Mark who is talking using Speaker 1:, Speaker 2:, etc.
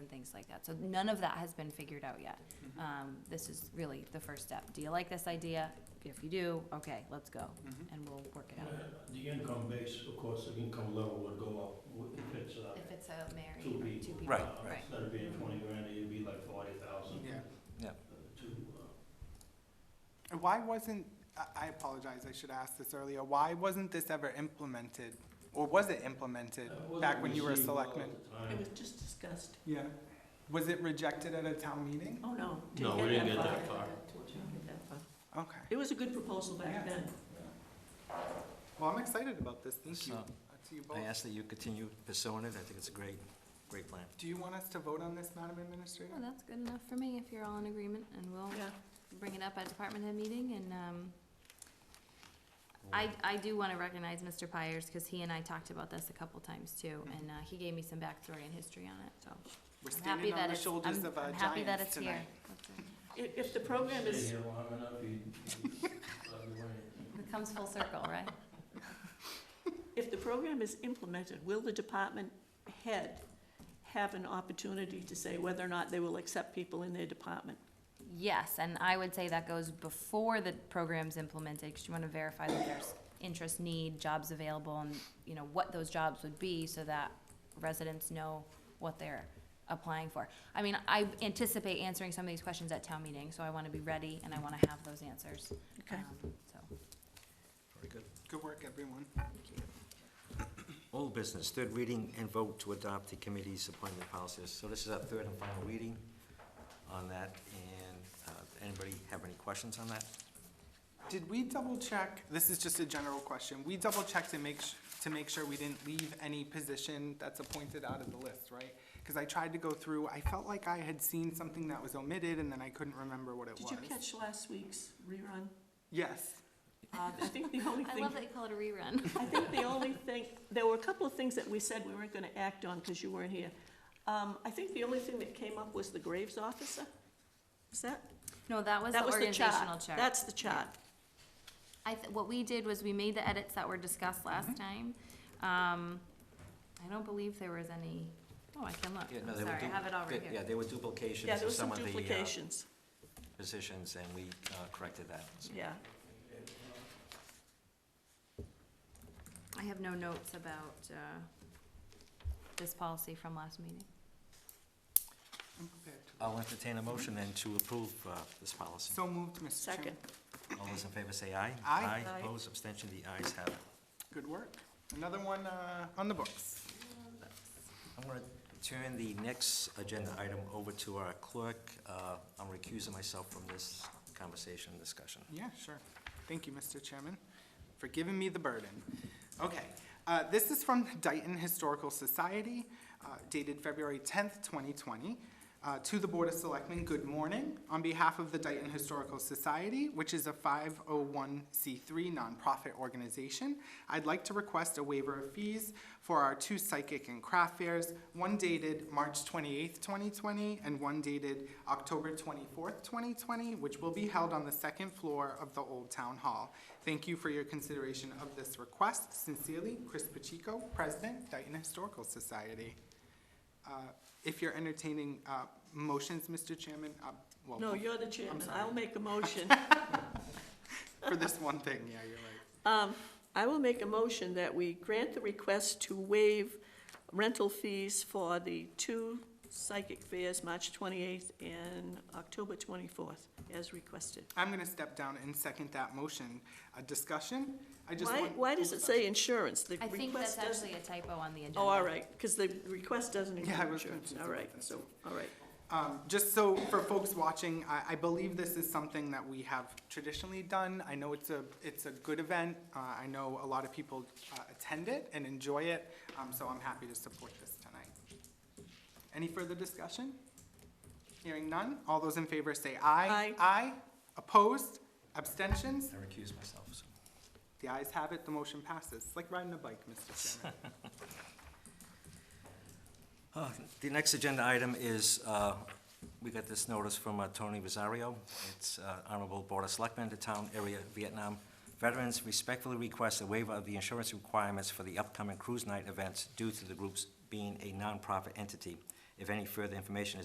Speaker 1: things like that. So none of that has been figured out yet. Um, this is really the first step. Do you like this idea? If you do, okay, let's go,
Speaker 2: Mm-hmm.
Speaker 1: and we'll work it out.
Speaker 3: The income base, of course, the income level would go up w- if it's, uh,
Speaker 1: If it's a married,
Speaker 3: Two people.
Speaker 1: two people.
Speaker 4: Right,
Speaker 3: uh,
Speaker 1: right.
Speaker 3: Instead of being twenty grand, it'd be like forty thousand.
Speaker 2: Yeah.
Speaker 4: Yeah.
Speaker 3: To, uh,
Speaker 2: And why wasn't, I- I apologize, I should have asked this earlier, why wasn't this ever implemented? Or was it implemented
Speaker 3: that wasn't
Speaker 2: back when you were a
Speaker 3: received well at
Speaker 2: selectman?
Speaker 3: the time.
Speaker 5: It was just discussed.
Speaker 2: Yeah. Was it rejected at a town meeting?
Speaker 5: Oh, no.
Speaker 3: No, we didn't get that far.
Speaker 5: Didn't get that far.
Speaker 2: Okay.
Speaker 5: It was a good proposal back
Speaker 2: Yeah.
Speaker 5: then.
Speaker 2: Well, I'm excited about this, thank you.
Speaker 4: So,
Speaker 2: Uh, To you both.
Speaker 4: I ask that you continue pursuing it. I think it's a great, great plan.
Speaker 2: Do you want us to vote on this, Madam Administrator?
Speaker 1: Well, that's good enough for me, if you're all in agreement, and we'll
Speaker 5: Yeah.
Speaker 1: bring it up at department head meeting, and, um, I, I do wanna recognize Mr. Pyers, cause he and I talked about this a couple times too, and, uh, he gave me some backstory and history on it, so.
Speaker 2: We're
Speaker 1: I'm happy that
Speaker 2: standing on the
Speaker 1: it's-
Speaker 2: shoulders
Speaker 1: I'm-
Speaker 2: of our
Speaker 1: I'm happy that
Speaker 2: giants
Speaker 1: it's here.
Speaker 2: tonight.
Speaker 1: That's it.
Speaker 5: If, if the program
Speaker 3: Stay
Speaker 5: is,
Speaker 3: here long enough, you, you, I'll be waiting.
Speaker 1: It comes full circle, right?
Speaker 5: if the program is implemented, will the department head have an opportunity to say whether or not they will accept people in their department?
Speaker 1: Yes, and I would say that goes before the program's implemented, because you want to verify that there's interest, need, jobs available, and, you know, what those jobs would be, so that residents know what they're applying for. I mean, I anticipate answering some of these questions at town meeting, so I want to be ready, and I want to have those answers. Um, So,
Speaker 4: Very good.
Speaker 2: Good work, everyone.
Speaker 4: Old business, third reading and vote to adopt the committee's appointment policies. So this is our third and final reading on that, and uh, anybody have any questions on that?
Speaker 2: Did we double check, this is just a general question, we double checked to make, s- to make sure we didn't leave any position that's appointed out of the list, right? Because I tried to go through, I felt like I had seen something that was omitted and then I couldn't remember what it
Speaker 5: Did
Speaker 2: was.
Speaker 5: you catch last week's rerun?
Speaker 2: Yes,
Speaker 5: Uh, I think the only
Speaker 1: I
Speaker 5: thing,
Speaker 1: love that you call it a rerun.
Speaker 5: I think the only thing, there were a couple of things that we said we weren't gonna act on because you weren't here. Um, I think the only thing that came up was the Graves officer. Is that?
Speaker 1: No, that was the
Speaker 5: That was the
Speaker 1: organizational
Speaker 5: chart.
Speaker 1: chart.
Speaker 5: That's the chart.
Speaker 1: I, th- what we did was we made the edits that were discussed last
Speaker 4: Mm-hmm.
Speaker 1: time. Um, I don't believe there was any, oh, I can look,
Speaker 4: Yeah, no,
Speaker 1: I'm
Speaker 4: they were
Speaker 1: sorry, I
Speaker 4: du-
Speaker 1: have it all right
Speaker 4: they-
Speaker 1: here.
Speaker 4: Yeah, there were
Speaker 5: Yeah,
Speaker 4: duplications
Speaker 5: there
Speaker 4: of
Speaker 5: was
Speaker 4: some
Speaker 5: some
Speaker 4: of the uh,
Speaker 5: duplications,
Speaker 4: positions, and we uh, corrected that. So
Speaker 5: yeah.
Speaker 1: I have no notes about, uh, this policy from last meeting.
Speaker 2: I'm prepared to.
Speaker 4: I'll entertain a motion then to approve uh, this policy.
Speaker 2: So moved, Mr. Chairman.
Speaker 5: Second.
Speaker 4: All those in favor say aye.
Speaker 2: Aye.
Speaker 5: Aye.
Speaker 4: Opposed, abstention, the ayes have it.
Speaker 2: Good work. Another one, uh, on the books.
Speaker 4: I'm going to turn the next agenda item over to our clerk. Uh, I'm recusing myself from this conversation, discussion.
Speaker 2: Yeah, sure. Thank you, Mr. Chairman, for giving me the burden. Okay, uh, this is from the Dayton Historical Society uh, dated February 10th, 2020. Uh, To the Board of Selectmen, good morning. On behalf of the Dayton Historical Society, which is a 501c3 nonprofit organization, I'd like to request a waiver of fees for our two psychic and craft fairs, one dated March 28th, 2020, and one dated October 24th, 2020, which will be held on the second floor of the Old Town Hall. Thank you for your consideration of this request. Sincerely, Chris Pacheco, President, Dayton Historical Society. Uh, If you're entertaining uh, motions, Mr. Chairman, uh, well,
Speaker 5: No, you're the chairman.
Speaker 2: sorry.
Speaker 5: I'll make a motion.
Speaker 2: for this one thing, yeah, you're right.
Speaker 5: Um, I will make a motion that we grant the request to waive rental fees for the two psychic fairs, March 28th and October 24th, as requested.
Speaker 2: I'm going to step down and second that motion. A discussion? I just
Speaker 5: Why,
Speaker 2: want-
Speaker 5: why does it say insurance? The
Speaker 1: I think that's
Speaker 5: request doesn't-
Speaker 1: actually a typo on the agenda.
Speaker 5: Oh, all right, because the request doesn't
Speaker 2: Yeah, I
Speaker 5: include
Speaker 2: was
Speaker 5: insurance.
Speaker 2: confused
Speaker 5: All
Speaker 2: about
Speaker 5: right,
Speaker 2: that,
Speaker 5: so,
Speaker 2: too.
Speaker 5: all right.
Speaker 2: Um, just so for folks watching, I, I believe this is something that we have traditionally done. I know it's a, it's a good event. Uh, I know a lot of people, uh, attend it and enjoy it, um, so I'm happy to support this tonight. Any further discussion? Hearing none, all those in favor say aye.
Speaker 5: Aye.
Speaker 2: Aye. Opposed? Abstentions?
Speaker 4: I recuse myself, so.
Speaker 2: The ayes have it, the motion passes. It's like riding a bike, Mr. Chairman.
Speaker 4: Uh, The next agenda item is, uh, we got this notice from uh, Tony Rosario. It's uh, Honorable Board of Selectmen, the town area Vietnam veterans respectfully request a waiver of the insurance requirements for the upcoming cruise night events due to the groups being a nonprofit entity. If any further information is